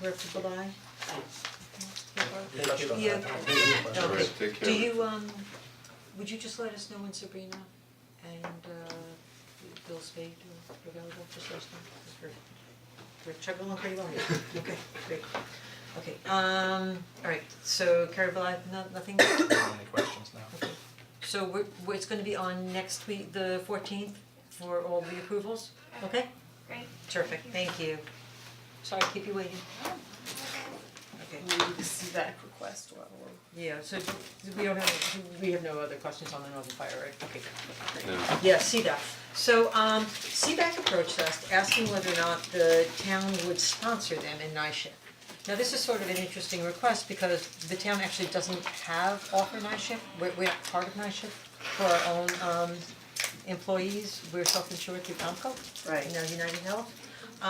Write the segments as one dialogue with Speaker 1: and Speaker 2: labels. Speaker 1: where people die?
Speaker 2: touched on
Speaker 1: Yeah.
Speaker 2: that. Thank you.
Speaker 1: Okay.
Speaker 3: Alright, take care.
Speaker 1: Do you, um, would you just let us know when Sabrina and uh Bill Spade are available, just let us know, 'cause we're we're chugging along pretty well here, okay, great. Okay, um, alright, so Carrie Bly, no, nothing,
Speaker 2: Any questions now?
Speaker 1: okay, so we're, we're- it's gonna be on next week, the fourteenth, for all the approvals, okay?
Speaker 4: Great.
Speaker 1: Terrific, thank you. Sorry, to keep you waiting. Okay.
Speaker 5: We need to see that request while we're.
Speaker 1: Yeah, so do- we don't have, do we have no other questions on the Northern Fire, right? Okay.
Speaker 3: No.
Speaker 1: Yeah, CDAC. So um CDAC approached us asking whether or not the town would sponsor them in NISHIP. Now, this is sort of an interesting request because the town actually doesn't have offer NISHIP, we're we're not part of NISHIP for our own um employees, we're self-insured through Comco.
Speaker 5: Right.
Speaker 1: You know, United Health.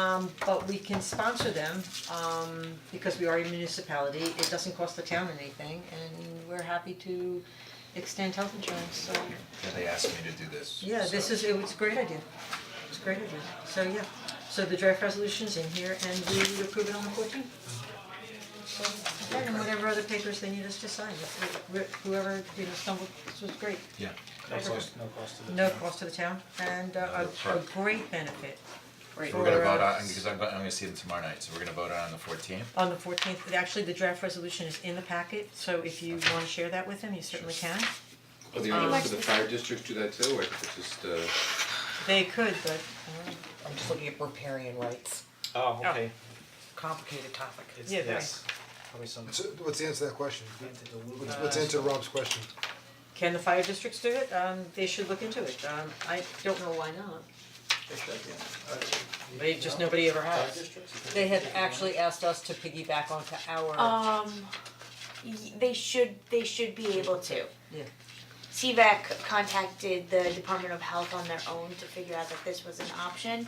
Speaker 1: Um but we can sponsor them um because we are a municipality, it doesn't cost the town anything and we're happy to extend health insurance, so
Speaker 2: Yeah, they asked me to do this.
Speaker 1: yeah, this
Speaker 2: so-
Speaker 1: is, it was a great idea, it's a great idea, so yeah, so the draft resolution's in here and we would approve it on the fourteenth. So, okay, and whatever other papers they need us to sign, if we- whoever, you know, stumbled, this was great,
Speaker 2: Yeah.
Speaker 1: No cost-
Speaker 2: no cost to
Speaker 1: no cost to the town and uh, a a
Speaker 2: Sure.
Speaker 1: great benefit.
Speaker 5: Great.
Speaker 2: We're gonna
Speaker 1: for,
Speaker 2: vote
Speaker 1: uh,
Speaker 2: on, because I'm go- I'm gonna see them tomorrow night, so we're gonna vote on the fourteenth.
Speaker 1: On the fourteenth, actually, the draft resolution is in the packet, so if you wanna share that with them, you certainly can.
Speaker 3: Well, Oh, the
Speaker 1: Um,
Speaker 3: owners of the fire district do that too, or it's just uh
Speaker 1: They could, but, uh,
Speaker 6: I'm just looking at riparian rights,
Speaker 7: Oh, okay.
Speaker 6: complicated topic.
Speaker 7: It's,
Speaker 1: Yeah, right.
Speaker 7: yes, probably some.
Speaker 8: So what's the answer to that question? What's, what's the answer to Rob's question?
Speaker 1: can the fire districts do it? Um, they should look into it, um, I don't know why not. They just, nobody ever has. They had actually asked us to piggyback onto our,
Speaker 4: Um, y- they should, they should be able to.
Speaker 1: yeah,
Speaker 4: CVAC contacted the Department of Health on their own to figure out that this was an option.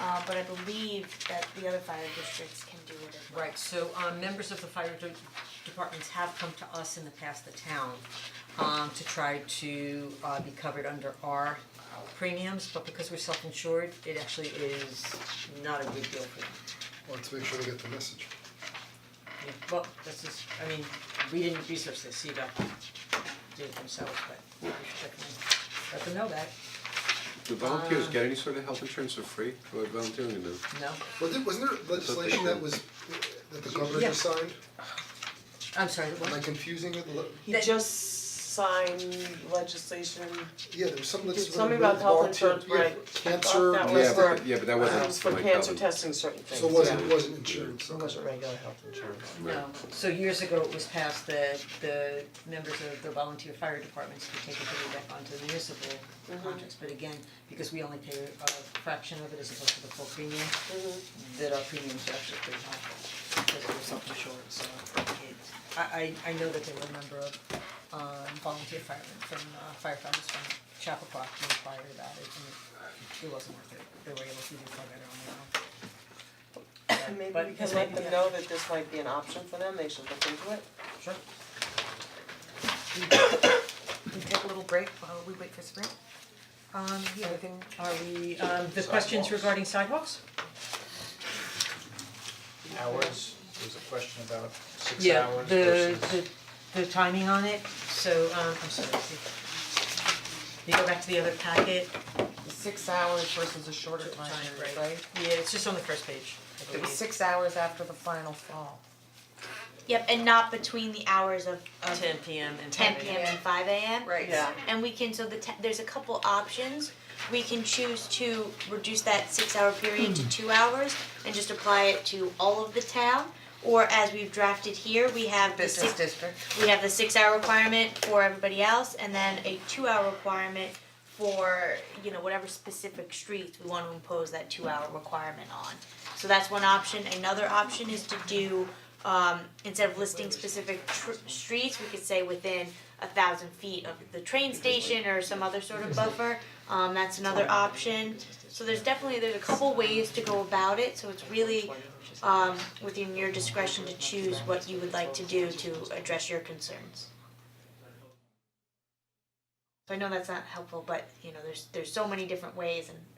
Speaker 4: Uh, but I believe that the other fire districts can do it as well.
Speaker 1: right, so, um, members of the fire de- departments have come to us in the past, the town, um, to try to, uh, be covered under our uh, premiums, but because we're self-insured, it actually is not a good deal for them.
Speaker 8: Let's make sure they get the message.
Speaker 1: Yeah, Well, this is, I mean, we didn't research this, CVAC did it themselves, but we should check them in. let them know that,
Speaker 3: do volunteers get any sort of health insurance for free, or volunteering them?
Speaker 1: no,
Speaker 8: Well, there, wasn't there legislation that was, that the governor just signed?
Speaker 1: I'm sorry, what?
Speaker 8: Am I confusing it? Le-
Speaker 5: He
Speaker 1: That-
Speaker 5: just signed legislation,
Speaker 8: Yeah, there was some legislation.
Speaker 5: Something about health
Speaker 8: volunteer-
Speaker 5: insurance,
Speaker 8: yeah,
Speaker 5: right.
Speaker 8: Cancer.
Speaker 5: That was
Speaker 3: Yeah,
Speaker 5: for-
Speaker 3: but yeah, but that
Speaker 5: it
Speaker 3: wasn't
Speaker 5: was um, for
Speaker 3: like
Speaker 5: cancer
Speaker 3: health-
Speaker 5: testing certain things,
Speaker 8: So it wasn't, it wasn't insurance,
Speaker 5: It
Speaker 8: okay.
Speaker 5: wasn't regular health insurance.
Speaker 1: No, so years ago it was passed that the members of the volunteer fire departments could take it back onto the municipal
Speaker 5: Mm-hmm.
Speaker 1: contracts, but again, because we only pay a fraction of it as opposed to the full premium,
Speaker 5: Mm-hmm.
Speaker 1: that our premiums are actually pretty high, because we're self-insured, so it, I I I know that they were a member of um volunteer firemen from uh, firefighters from Chappaqua who inquired about it, and it- it wasn't worth it, they were able to do far better on their own.
Speaker 5: And maybe
Speaker 1: But
Speaker 5: we can
Speaker 1: it's
Speaker 5: let
Speaker 1: maybe-
Speaker 5: them know that this might be an option for them, they should look into it.
Speaker 1: Sure. We take a little break while we wait for Sabrina. Um, yeah, are we, um, the questions
Speaker 2: Sidewalks.
Speaker 1: regarding sidewalks?
Speaker 2: Hours, there's a question about six
Speaker 1: Yeah,
Speaker 2: hours
Speaker 1: the
Speaker 2: versus.
Speaker 1: the the timing on it, so, um, I'm sorry, see. You go back to the other packet,
Speaker 6: Six hours versus a shorter time period, right?
Speaker 1: yeah, it's just on the first page, I
Speaker 6: It
Speaker 1: believe.
Speaker 6: was six hours after the final fall.
Speaker 4: Yep, and not between the hours of of
Speaker 1: um, Ten P M and
Speaker 4: ten
Speaker 1: five
Speaker 4: P M and five A M.
Speaker 6: Right.
Speaker 5: Yeah.
Speaker 4: And we can, so the te- there's a couple options, we can choose to reduce that six hour period to two hours and just apply it to all of the town. Or as we've drafted here, we have the
Speaker 6: Business
Speaker 4: six,
Speaker 6: district.
Speaker 4: we have the six hour requirement for everybody else and then a two hour requirement for, you know, whatever specific streets we wanna impose that two hour requirement on. So that's one option, another option is to do, um, instead of listing specific tr- streets, we could say within a thousand feet of the train station or some other sort of buffer, um, that's another option. So there's definitely, there's a couple ways to go about it, so it's really, um, within your discretion to choose what you would like to do to address your concerns. So I know that's not helpful, but you know, there's there's so many different ways and